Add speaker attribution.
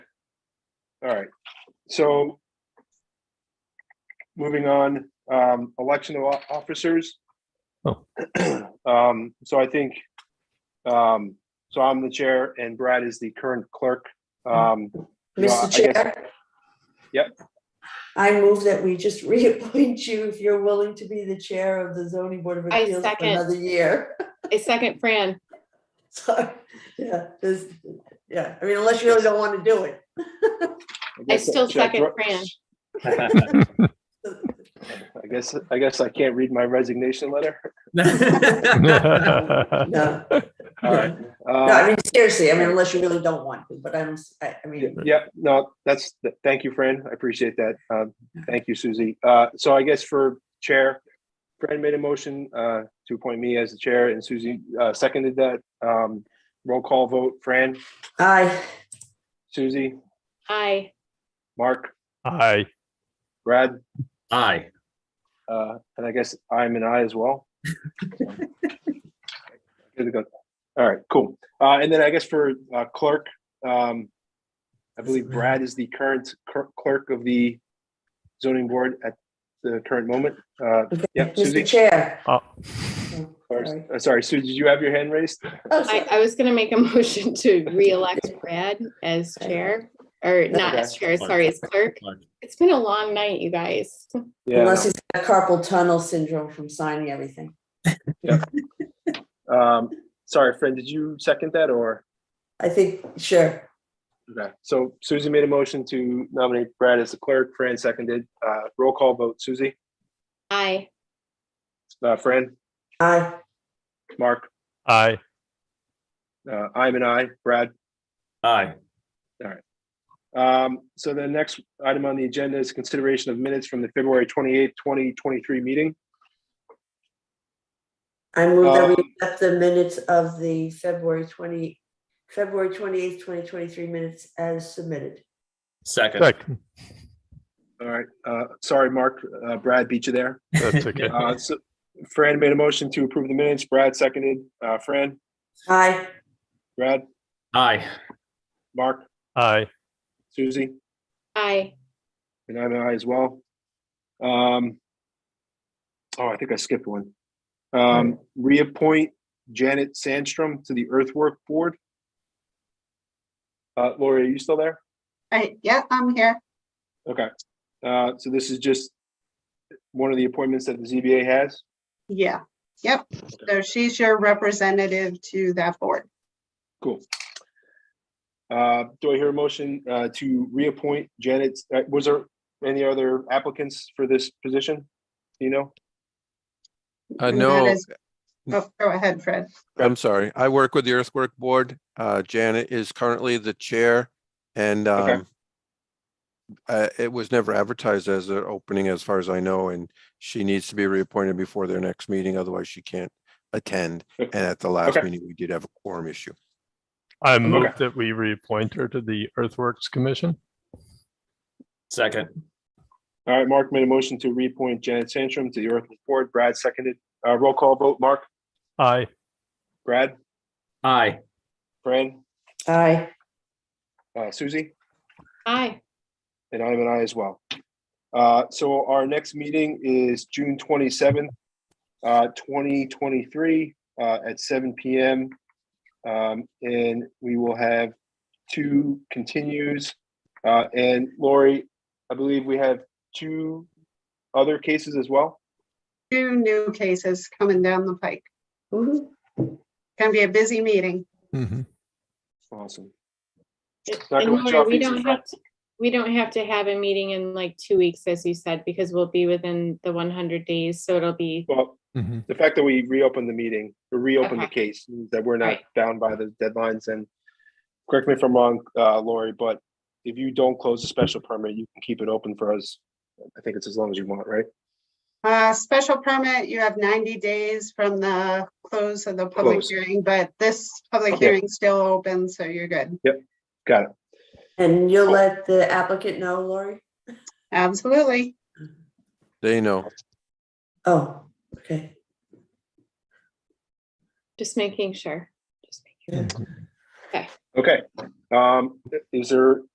Speaker 1: All right, so moving on, um, election of o- officers.
Speaker 2: Oh.
Speaker 1: Um, so I think, um, so I'm the chair and Brad is the current clerk. Um, Well, I
Speaker 3: Mr.
Speaker 1: guess-
Speaker 3: Chair?
Speaker 1: Yep.
Speaker 3: I move that we just reappoint you if you're willing to be the chair of the zoning board of
Speaker 4: I
Speaker 3: appeals for
Speaker 4: second.
Speaker 3: another year.
Speaker 4: A second, Fran.
Speaker 3: So, yeah, this, yeah, I mean, unless you really don't want to do it.
Speaker 4: I
Speaker 1: guess-
Speaker 4: still
Speaker 1: should I
Speaker 4: second
Speaker 1: throw-
Speaker 4: Fran.
Speaker 1: I guess, I guess I can't read my resignation letter.
Speaker 3: No,
Speaker 1: All right.
Speaker 3: no,
Speaker 1: Uh,
Speaker 3: I mean, seriously, I mean, unless you really don't want to, but I'm, I, I mean,
Speaker 1: Yeah, no, that's, th- thank you, Fran. I appreciate that. Um, Thank you, Susie. Uh, So I guess for Chair, Fran made a motion uh, to appoint me as the Chair and Susie uh, seconded that. Um, Roll call vote, Fran,
Speaker 3: I,
Speaker 1: Susie,
Speaker 4: Aye.
Speaker 1: Mark,
Speaker 2: Aye.
Speaker 1: Brad,
Speaker 5: Aye.
Speaker 1: uh, and I guess I'm an I as well. Good to go. All right, cool. Uh, And then I guess for uh, clerk, um, I believe Brad is the current cur- clerk of the zoning board at the current moment. Uh, Yeah, Susie.
Speaker 3: Mr. Chair.
Speaker 2: Uh,
Speaker 3: Oh,
Speaker 1: or-
Speaker 3: sorry.
Speaker 1: uh, Sorry, Sue, did you have your hand raised?
Speaker 3: Oh,
Speaker 4: I,
Speaker 3: sorry.
Speaker 4: I was gonna make a motion to reelect Brad as chair, or not as chair, sorry, as clerk. It's been a long night, you guys.
Speaker 3: Unless he's got carpal tunnel syndrome from signing everything.
Speaker 1: Um, Sorry, Fran, did you second that or?
Speaker 3: I think, sure,
Speaker 1: Okay, so Susie made a motion to nominate Brad as the clerk. Fran seconded. Uh, Roll call vote, Susie,
Speaker 4: Aye.
Speaker 1: uh, Fran,
Speaker 3: I,
Speaker 1: Mark,
Speaker 2: Aye.
Speaker 1: uh, I'm an I, Brad.
Speaker 5: Aye.
Speaker 1: Um, so the next item on the agenda is consideration of minutes from the February twenty-eighth, twenty twenty-three meeting.
Speaker 3: I move that we
Speaker 1: Um,
Speaker 3: accept the minutes of the February twenty, February twenty-eighth, twenty twenty-three minutes as submitted.
Speaker 5: Second.
Speaker 2: Second.
Speaker 1: All right, uh, sorry, Mark, uh, Brad beat you there.
Speaker 2: That's okay.
Speaker 1: Uh, so Fran made a motion to approve the minutes, Brad seconded, uh, Fran,
Speaker 3: Aye.
Speaker 1: Brad,
Speaker 5: Aye.
Speaker 1: Mark,
Speaker 2: Aye.
Speaker 1: Susie,
Speaker 4: Aye.
Speaker 1: and I'm an I as well. Um, oh, I think I skipped one. Um, reappoint Janet Sandstrom to the earthwork board. Uh, Lori, are you still there?
Speaker 6: Right, yeah, I'm here.
Speaker 1: Okay, uh, so this is just one of the appointments that the ZBA has?
Speaker 6: Yeah, yep. So she's your representative to that board.
Speaker 1: Cool. Uh, do I hear a motion, uh, to reappoint Janet, uh, was there any other applicants for this position? Do You know?
Speaker 7: I
Speaker 6: And that
Speaker 7: know,
Speaker 6: is- Oh, go ahead, Fred.
Speaker 7: Uh, I'm sorry. I work with the Earthwork Board. Uh, Janet is currently the chair and,
Speaker 1: Okay.
Speaker 7: um, uh, it was never advertised as an opening as far as I know, and she needs to be reappointed before their next meeting, otherwise she can't attend. And at the last
Speaker 1: Okay.
Speaker 7: meeting, we did have a quorum issue.
Speaker 2: I move that we reappoint her to the Earthworks Commission.
Speaker 5: Second.
Speaker 1: All right, Mark made a motion to reappoint Janet Sandstrom to the Earth Board. Brad seconded. Uh, roll call vote, Mark,
Speaker 2: Aye.
Speaker 1: Brad,
Speaker 5: Aye.
Speaker 1: Fran,
Speaker 3: Aye.
Speaker 1: uh, Susie,
Speaker 4: Aye.
Speaker 1: and I'm an I as well. Uh, so our next meeting is June twenty-seventh, uh, twenty twenty-three, uh, at seven PM. Um, and we will have two continues. Uh, and Lori, I believe we have two other cases as well.
Speaker 6: Two new cases coming down the pike.
Speaker 3: Woo-hoo.
Speaker 6: Gonna be a busy meeting.
Speaker 2: Mhm.
Speaker 1: Awesome. Dr.
Speaker 4: And Laura, we
Speaker 1: Wachowski,
Speaker 4: don't have, to- we don't have to have a meeting in like two weeks, as you said, because we'll be within the one hundred days, so it'll be,
Speaker 1: Well,
Speaker 2: Mhm.
Speaker 1: the fact that we reopened the meeting, or reopened the
Speaker 4: Okay.
Speaker 1: case, means that we're not
Speaker 4: Right.
Speaker 1: bound by the deadlines and correct me if I'm wrong, uh, Lori, but if you don't close the special permit, you can keep it open for us. I think it's as long as you want, right?
Speaker 6: Uh, special permit, you have ninety days from the close of the public
Speaker 1: Close.
Speaker 6: hearing, but this public
Speaker 1: Okay.
Speaker 6: hearing's still open, so you're good.
Speaker 1: Got it.
Speaker 3: And you'll let the applicant know, Lori?
Speaker 6: Absolutely.
Speaker 7: They know.
Speaker 3: Oh, okay.
Speaker 4: just making sure. Just making-
Speaker 1: Okay. Um, is there